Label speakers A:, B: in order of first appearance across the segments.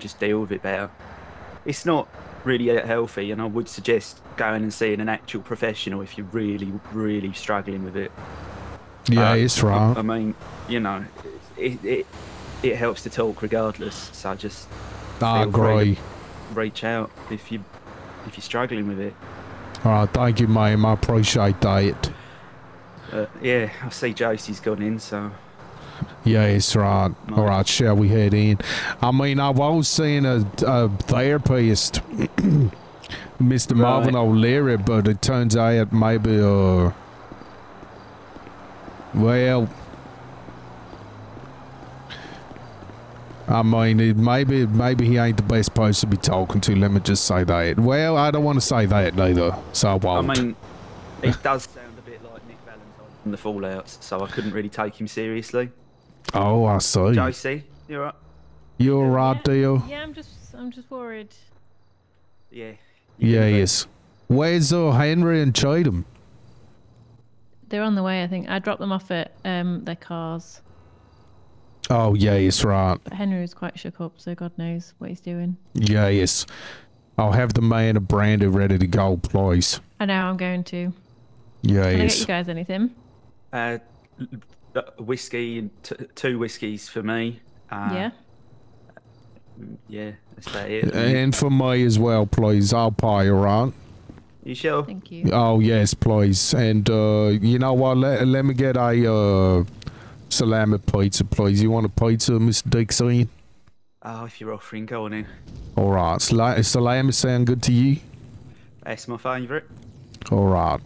A: just deal with it better. It's not really that healthy, and I would suggest going and seeing an actual professional if you're really, really struggling with it.
B: Yeah,
A: Um,
B: it's right.
A: I mean, you know, it it, it helps to talk regardless. So just feel free
B: I
A: to-
B: Ah, agree.
A: reach out if you if you're struggling with it.
B: All right, thank you, ma'am. I appreciate that.
A: Uh, yeah, I see Josie's gone in, so
B: Yeah, it's right. All
A: Nice.
B: right, shall we head in? I mean, I was seeing a, a therapist, Mr. Marvin O'Leary, but it turns out maybe, uh, well, I mean, it, maybe maybe he ain't the best person to be talking to. Let me just say that. Well, I don't want to say that neither, so I
A: I
B: won't.
A: mean, it does sound a bit like Nick Valentine from the Fallouts, so I couldn't really take him seriously.
B: oh, I see.
A: Josie, you're right.
B: You're right, deal.
C: Yeah, I'm just I'm just worried.
A: Yeah. you
B: Yeah,
A: can do it.
B: yes. Where's uh, Henry and Chatham?
C: They're on the way, I think. I dropped them off at um their cars.
B: Oh, yes, right.
C: But Henry was quite shook up, so God knows what he's doing.
B: Yes. I'll have the man of brandy ready to go, please.
C: I know I'm going to. Can I get
B: Yes.
C: you guys anything?
A: Uh, l- uh, whiskey and t- two whiskeys for me. Uh,
C: yeah.
A: Yeah, that's about it.
B: And for me as well, please. I'll pay, all right?
A: you sure?
C: Thank you.
B: Oh, yes, please. And uh, you know what? Let, let me get a uh, salami pizza, please. You want a pizza, Mr. Dixon?
A: Oh, if you're offering, go on in.
B: All right. Sal- salami sound good to you?
A: That's my favourite.
B: All right.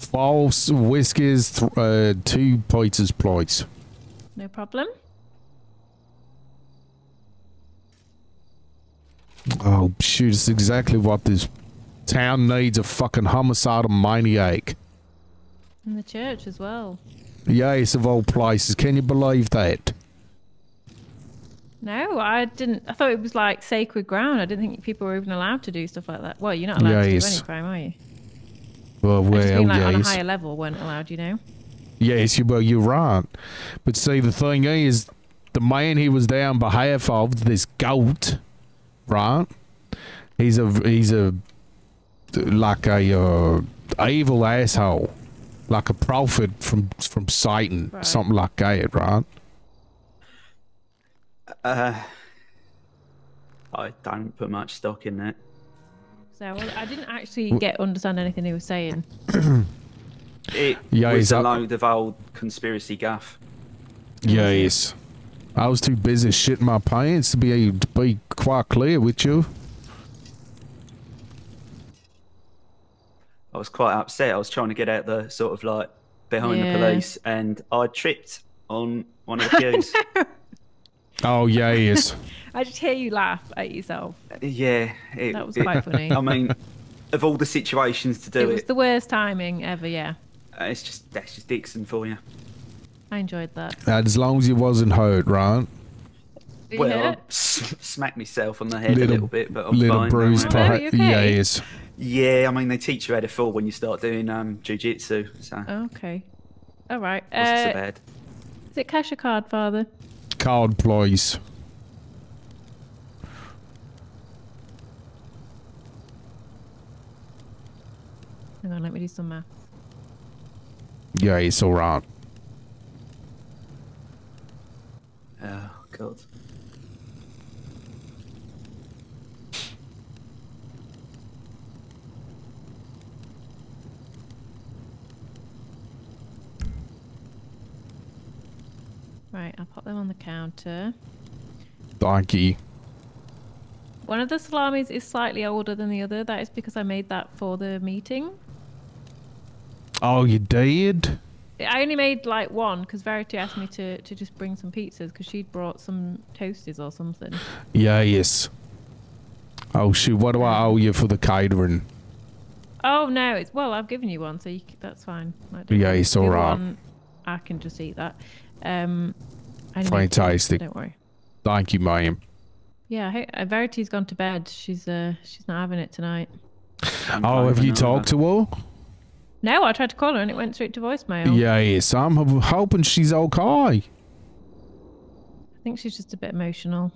B: Four s- whiskies, th- uh, two pizzas, please.
C: No problem.
B: Oh, shoot, it's exactly what this town needs a fucking homicidal maniac.
C: And the church as well.
B: Yes, of all places. Can you believe that?
C: No, I didn't. I thought it was like sacred ground. I didn't think people were even allowed to do stuff like that. Well, you're not allowed to do
B: Yes.
C: any crime, are you?
B: Well,
C: I just
B: well,
C: mean like on a
B: yes.
C: higher level weren't allowed, you know.
B: Yes, you, well, you're right. But see, the thing is, the man he was there on behalf of, this goat, right? He's a, he's a, like a, uh, evil asshole. Like a prophet from, from Satan.
C: Right.
B: Something like that, right?
A: Uh, I don't put much stock in that.
C: So well, I didn't actually get understand anything he was saying.
A: It
B: Yeah,
A: was
B: he's
A: a
B: up-
A: load of old conspiracy guff.
B: Yes. I was too busy shitting my pants to be able to be quite clear with you.
A: I was quite upset. I was trying to get out the sort of like behind
C: Yeah.
A: the police, and I tripped on one of the queues.
B: Oh yes.
C: I just hear you laugh at yourself.
A: yeah, it,
C: That was
A: it-
C: quite funny.
A: I mean, of all the situations to
C: It
A: do
C: was
A: it,
C: the worst timing ever. Yeah,
A: uh, it's just that's just Dixon for you.
C: I enjoyed that.
B: as long as you wasn't hurt, right?
C: Were you
A: Well, I
C: hurt?
A: s- smacked myself on the head
B: Little-
A: a little bit, but I'm
B: Little
A: fine.
B: bruise,
A: now,
C: Oh,
A: mate.
C: no,
B: perhaps.
C: you're okay.
B: Yes.
A: Yeah, I mean they teach you how to fall when you start doing um jujitsu, so it
C: okay. All right.
A: wasn't so
C: Uh,
A: bad.
C: is it cash or card, Father?
B: Card, please.
C: Hang on, let me do some math.
B: Yeah, it's all right.
A: Oh god.
C: Right, I'll pop them on the counter.
B: Thank you.
C: One of the salamis is slightly older than the other. That is because I made that for the meeting.
B: Oh, you did?
C: I only made like one because Verity asked me to, to just bring some pizzas because she'd brought some toasties or something.
B: Yes. Oh shoot! What do I owe you for the catering?
C: Oh no, it's well I've given you one, so you, c- that's fine. Like,
B: Yeah, it's
C: the
B: all
C: other
B: right.
C: one, I can just eat that. Um, I only made two,
B: Fantastic.
C: Don't worry.
B: Thank you, ma'am.
C: Yeah, I hope- uh, Verity's gone to bed. She's uh she's not having it tonight.
A: I'm
B: Oh, have
A: craving
B: you
A: either.
B: talked to her?
C: No, I tried to call her and it went straight to voicemail.
B: Yes, I'm h- hoping she's okay.
C: I think she's just a bit emotional.